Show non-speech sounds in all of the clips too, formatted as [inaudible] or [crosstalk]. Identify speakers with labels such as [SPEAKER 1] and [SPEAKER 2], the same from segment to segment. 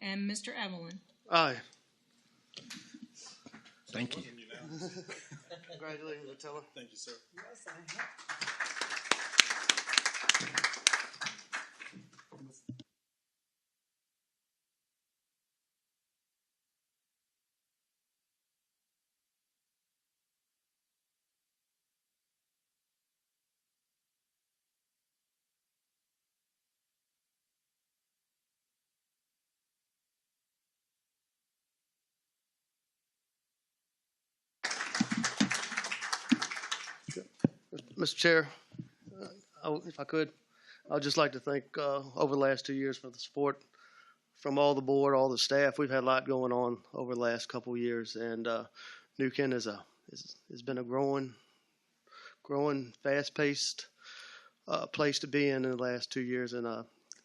[SPEAKER 1] and Mr. Evelyn.
[SPEAKER 2] Aye.
[SPEAKER 3] Thank you.
[SPEAKER 2] Congratulations, Attila.
[SPEAKER 4] Thank you, sir.
[SPEAKER 2] Mr. Chair, uh, I- if I could, I'd just like to thank, uh, over the last two years for the support from all the board, all the staff. We've had a lot going on over the last couple of years, and uh, New Kent is a, is, has been a growing, growing, fast-paced uh, place to be in in the last two years, and uh,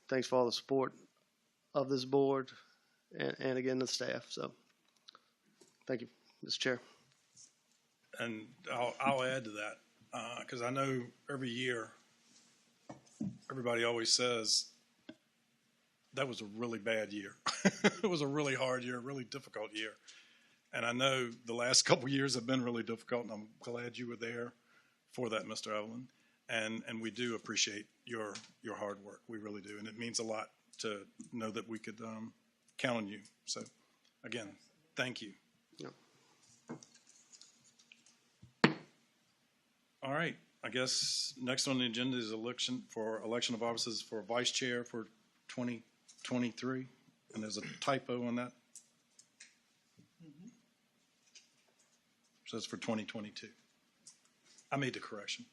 [SPEAKER 2] thanks for all the support of this board and, and again, the staff, so, thank you, Mr. Chair.
[SPEAKER 4] And I'll, I'll add to that, because I know every year, everybody always says, that was a really bad year. [laughs] it was a really hard year, a really difficult year. And I know the last [laughs] couple years have been really difficult, and I'm glad you were there for that, Mr. Evelyn. And, and we do appreciate your, your hard work. We really do. And it means a lot to know that we could um, count on you. So, again, thank you. All right, I guess next on the agenda is election for election of offices for vice chair for 2023. And there's a typo on that. Says for 2022. I made the correction.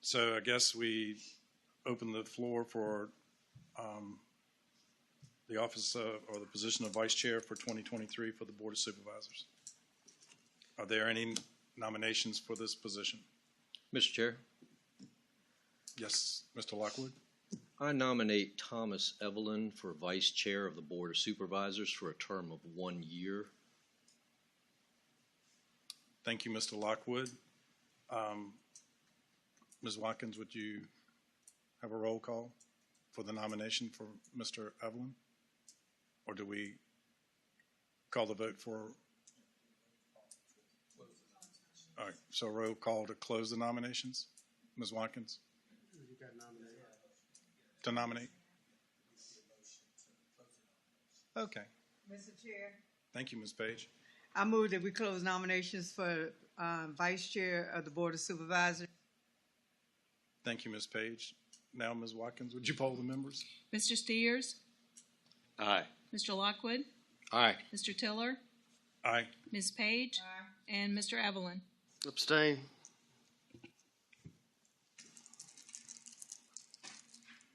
[SPEAKER 4] So I guess we open the floor for um, the office of- or the position of vice chair for 2023 for the Board of Supervisors. Are there any nominations for this position?
[SPEAKER 3] Mr. Chair,
[SPEAKER 4] Yes, Mr. Lockwood?
[SPEAKER 3] I nominate Thomas Evelyn for Vice Chair of the Board of Supervisors for a term of one year.
[SPEAKER 4] Thank you, Mr. Lockwood. Um, Ms. Watkins, would you have a roll call for the nomination for Mr. Evelyn? Or do we call the vote for? All right, so roll call to close the nominations? Ms. Watkins? To nominate? Okay,
[SPEAKER 5] Mr. Chair.
[SPEAKER 4] thank you, Ms. Page.
[SPEAKER 5] I move that we close nominations for um, Vice Chair of the Board of Supervisors.
[SPEAKER 4] Thank you, Ms. Page. Now, Ms. Watkins, would you poll the members?
[SPEAKER 1] Mr. Steers,
[SPEAKER 3] Aye.
[SPEAKER 1] Mr. Lockwood,
[SPEAKER 3] Aye.
[SPEAKER 1] Mr. Tiller,
[SPEAKER 4] Aye.
[SPEAKER 1] Ms. Page, and Mr. Evelyn.
[SPEAKER 2] Abstain.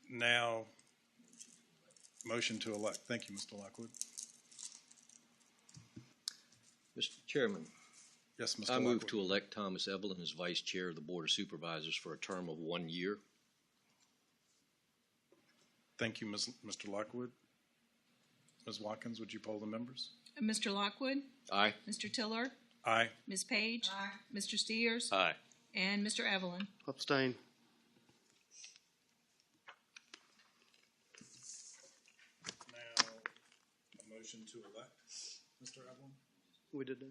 [SPEAKER 4] Now, motion to elect. Thank you, Mr. Lockwood.
[SPEAKER 3] Mr. Chairman,
[SPEAKER 4] Yes, Mr.
[SPEAKER 3] I
[SPEAKER 4] Lockwood.
[SPEAKER 3] move to elect Thomas Evelyn as Vice Chair of the Board of Supervisors for a term of one year.
[SPEAKER 4] Thank you, Ms. Mr. Lockwood. Ms. Watkins, would you poll the members?
[SPEAKER 1] Mr. Lockwood,
[SPEAKER 3] Aye.
[SPEAKER 1] Mr. Tiller,
[SPEAKER 4] Aye.
[SPEAKER 1] Ms. Page, Mr. Steers,
[SPEAKER 3] Aye.
[SPEAKER 1] and Mr. Evelyn.
[SPEAKER 2] Abstain.
[SPEAKER 4] Now, a motion to elect, Mr. Evelyn?
[SPEAKER 2] We did that.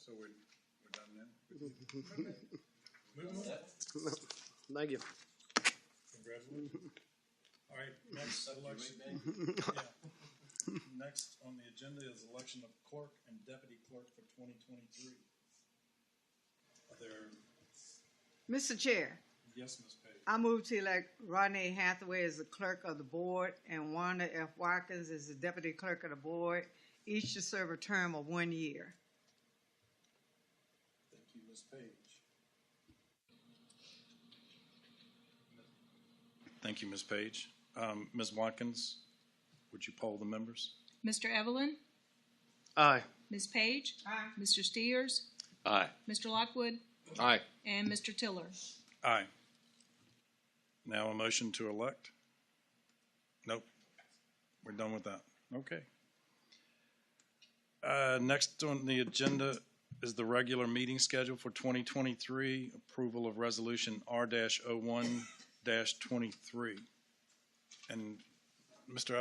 [SPEAKER 4] So we're, we're done now?
[SPEAKER 2] [laughs] Thank you.
[SPEAKER 4] Congratulations. All right, next election. [laughs] Yeah. Next on the agenda is election of clerk and deputy clerk for twenty twenty-three. Are there,
[SPEAKER 5] Mr. Chair,
[SPEAKER 4] yes, Ms. Page?
[SPEAKER 5] I move to elect Rodney Hathaway as the clerk of the board and Wanda F. Watkins as the deputy clerk of the board, each to serve a term of one year.
[SPEAKER 4] Thank you, Ms. Page. Thank you, Ms. Page. Um, Ms. Watkins, would you poll the members?
[SPEAKER 1] Mr. Evelyn,
[SPEAKER 2] Aye.
[SPEAKER 1] Ms. Page,
[SPEAKER 5] Aye.
[SPEAKER 1] Mr. Steers,
[SPEAKER 3] Aye.
[SPEAKER 1] Mr. Lockwood,
[SPEAKER 3] Aye.
[SPEAKER 1] and Mr. Tiller.
[SPEAKER 4] Aye. Now a motion to elect? Nope. We're done with that. Okay. Uh, next on the agenda is the regular meeting schedule for twenty twenty-three, approval of resolution R dash oh one dash twenty-three. And Mr.